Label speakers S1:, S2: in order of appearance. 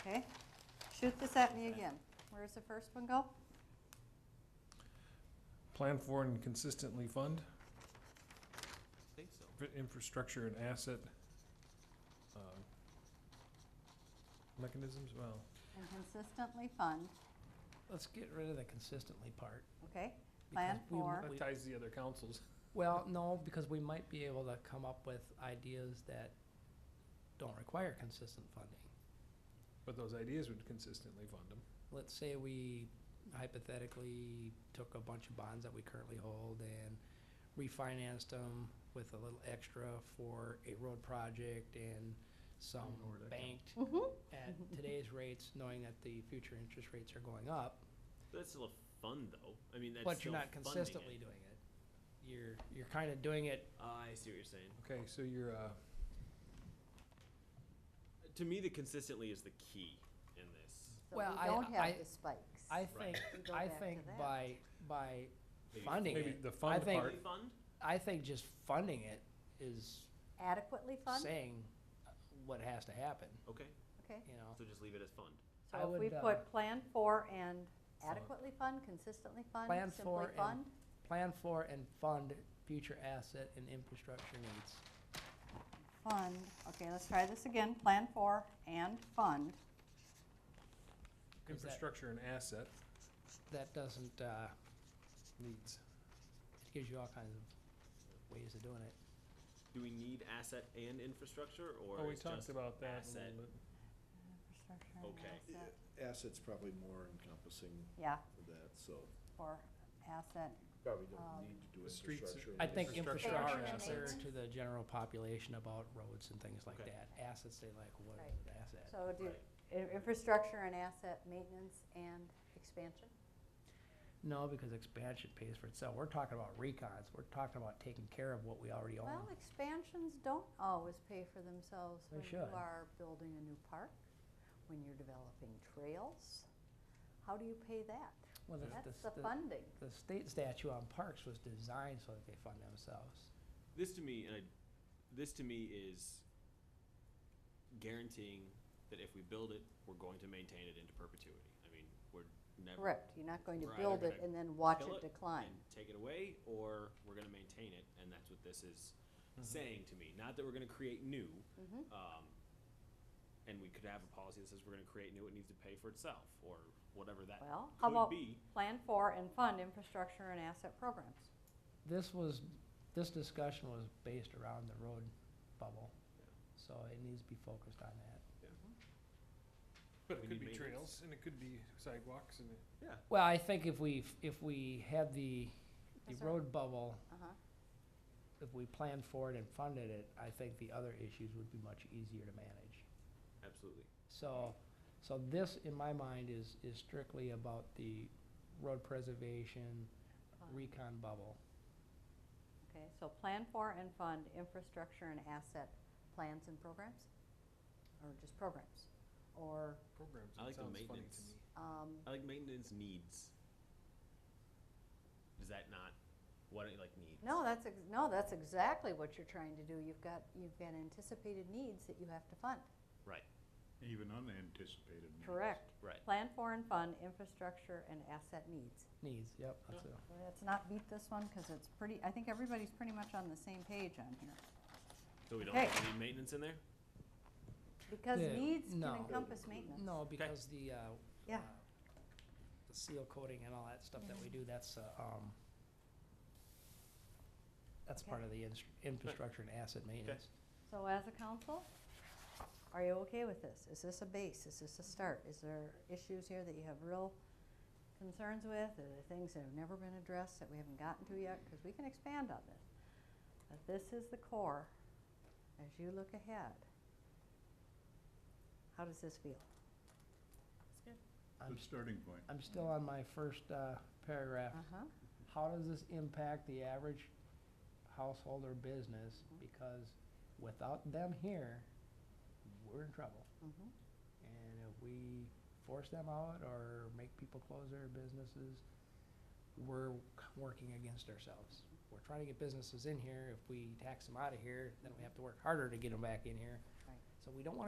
S1: Okay, shoot this at me again. Where's the first one go?
S2: Plan for and consistently fund
S3: I think so.
S2: fi- infrastructure and asset um, mechanisms, well,
S1: And consistently fund,
S4: Let's get rid of the consistently part.
S1: okay?
S4: because
S1: Plan
S4: we
S1: for-
S4: might-
S2: that ties the other councils.
S4: Well, no, because we might be able to come up with ideas that don't require consistent funding.
S2: But those ideas would consistently fund them.
S4: let's say we hypothetically took a bunch of bonds that we currently hold and refinanced them with a little extra for a road project and some
S2: Ignore that count.
S4: banked
S1: Mm-hmm.
S4: at today's rates, knowing that the future interest rates are going up,
S3: But that's still a fund, though. I mean, that's
S4: but
S3: still
S4: you're not
S3: funding
S4: consistently
S3: it.
S4: doing it. You're, you're kind of doing it,
S3: Ah, I see what you're saying.
S2: Okay, so you're, uh,
S3: To me, the consistently is the key in this.
S1: So
S4: Well, I-
S1: we don't
S4: I-
S1: have the spikes.
S4: I
S3: Right.
S4: think,
S1: We go
S4: I
S1: back to
S4: think
S1: that.
S4: by, by
S3: Maybe
S4: funding
S2: maybe
S4: it,
S2: the fund
S4: think-
S2: part,
S3: Fund?
S4: I think just funding it is
S1: Adequately fund,
S4: saying what has to happen,
S3: Okay,
S1: okay?
S4: you know?
S3: so just leave it as fund.
S4: I
S1: So if we
S4: would, uh,
S1: put plan for and
S2: Fund.
S1: adequately fund, consistently fund,
S4: Plan
S1: simply
S4: for and-
S1: fund,
S4: plan for and fund future asset and infrastructure needs.
S1: fund, okay, let's try this again, plan for and fund.
S4: Is that-
S2: infrastructure and asset
S4: That doesn't, uh,
S2: needs.
S4: it gives you all kinds of ways of doing it.
S3: Do we need asset and infrastructure, or
S2: Oh, we
S3: is
S2: talked
S3: just
S2: about that a
S3: asset.
S2: little bit.
S1: Infrastructure and
S3: Okay.
S1: asset.
S5: Assets probably more encompassing
S1: Yeah,
S5: of that, so
S1: for asset,
S5: probably
S1: Um,
S5: don't need to do
S2: The streets-
S5: infrastructure.
S4: I think
S2: Infrastructure
S4: infrastructure
S1: and
S4: is there
S1: maintenance.
S4: to the general population about roads and things like
S3: Okay.
S4: that. Assets, they like, what
S1: Right.
S4: is an asset?
S1: so do,
S3: Right.
S1: i- infrastructure and asset maintenance and expansion?
S4: No, because expansion pays for itself. We're talking about recons. We're talking about taking care of what we already own.
S1: Well, expansions don't always pay for themselves
S4: They
S1: when you
S4: should.
S1: are building a new park, when you're developing trails. How do you pay that?
S4: Well, the-
S1: That's
S4: the-
S1: the funding.
S4: The state statute on parks was designed so that they fund themselves.
S3: This to me, and I, this to me is guaranteeing that if we build it, we're going to maintain it into perpetuity. I mean, we're never
S1: Correct, you're not going to
S3: We're either
S1: build it
S3: gonna
S1: and then watch
S3: kill
S1: it decline.
S3: and take it away, or we're going to maintain it, and that's what this is saying to me. Not that we're going to create new,
S1: Mhm.
S3: um, and we could have a policy that says we're going to create new; it needs to pay for itself, or whatever that
S1: Well, how
S3: could
S1: about
S3: be.
S1: plan for and fund infrastructure and asset programs?
S4: this was, this discussion was based around the road bubble,
S3: Yeah.
S4: so it needs to be focused on that.
S2: But
S3: We
S2: it could
S3: need
S2: be
S3: maintenance.
S2: trails, and it could be sidewalks, and it-
S4: Well, I think if we, if we had the, the
S1: Yes, sir.
S4: road bubble,
S1: Uh-huh.
S4: if we planned for it and funded it, I think the other issues would be much easier to manage.
S3: Absolutely.
S4: So, so this, in my mind, is, is strictly about the road preservation
S1: Fund.
S4: recon bubble.
S1: Okay, so plan for and fund infrastructure and asset plans and programs? Or just programs? Or,
S2: programs.
S3: I
S2: it
S3: like the
S2: sounds funny to
S3: maintenance.
S2: me.
S1: um,
S3: I like maintenance needs. Is that not what it like needs?
S1: no, that's, ex- no, that's exactly what you're trying to do. You've got, you've got anticipated needs that you have to fund.
S3: Right.
S6: Even unanticipated needs.
S1: Correct.
S3: Right.
S1: Plan for and fund infrastructure and asset needs.
S4: Needs, yep, that's it.
S1: Let's not beat this one, because it's pretty, I think everybody's pretty much on the same page on here.
S3: So we don't
S1: Okay.
S3: have any maintenance in there.
S1: Because
S4: Yeah,
S1: needs can
S4: no.
S1: encompass maintenance.
S4: No, because the, uh.
S1: Yeah.
S4: uh, The seal coating and all that stuff that we do, that's, uh, um, that's
S1: Okay.
S4: part of the instr- infrastructure and asset maintenance.
S1: So as a council, are you okay with this? Is this a base? Is this a start? Is there issues here that you have real concerns with? Are there things that have never been addressed that we haven't gotten to yet? Because we can expand on this. But this is the core as you look ahead. How does this feel?
S4: I'm,
S6: The starting point.
S4: I'm still on my first, uh, paragraph.
S1: Uh-huh.
S4: How does this impact the average household or business? Because without them here, we're in trouble.
S1: Mhm.
S4: And if we force them out or make people close their businesses, we're c- working against ourselves. We're trying to get businesses in here. If we tax them out of here, then we have to work harder to get them back in here.
S1: Right.
S4: So we don't want